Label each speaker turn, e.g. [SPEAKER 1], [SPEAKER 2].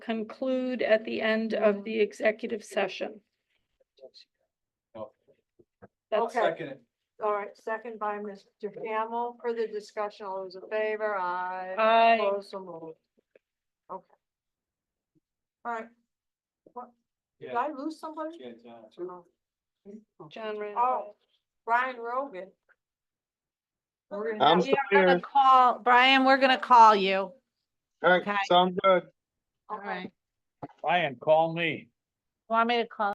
[SPEAKER 1] conclude at the end of the executive session. That's,
[SPEAKER 2] Okay.
[SPEAKER 3] Second.
[SPEAKER 2] All right, second by Mr. Hamel. Further discussion, all those in favor, aye.
[SPEAKER 1] I,
[SPEAKER 2] Opposed, so moved. Okay. All right. What- Did I lose somebody? Oh.
[SPEAKER 1] John Randolph.
[SPEAKER 2] Oh, Brian Rogan. We're gonna
[SPEAKER 4] I'm
[SPEAKER 2] have-
[SPEAKER 4] still
[SPEAKER 5] We are gonna
[SPEAKER 4] here.
[SPEAKER 5] call, Brian, we're gonna call you.
[SPEAKER 4] All right,
[SPEAKER 5] Okay.
[SPEAKER 4] sounds good.
[SPEAKER 5] All
[SPEAKER 2] Okay.
[SPEAKER 5] right.
[SPEAKER 3] Ryan, call me.
[SPEAKER 5] Want me to call?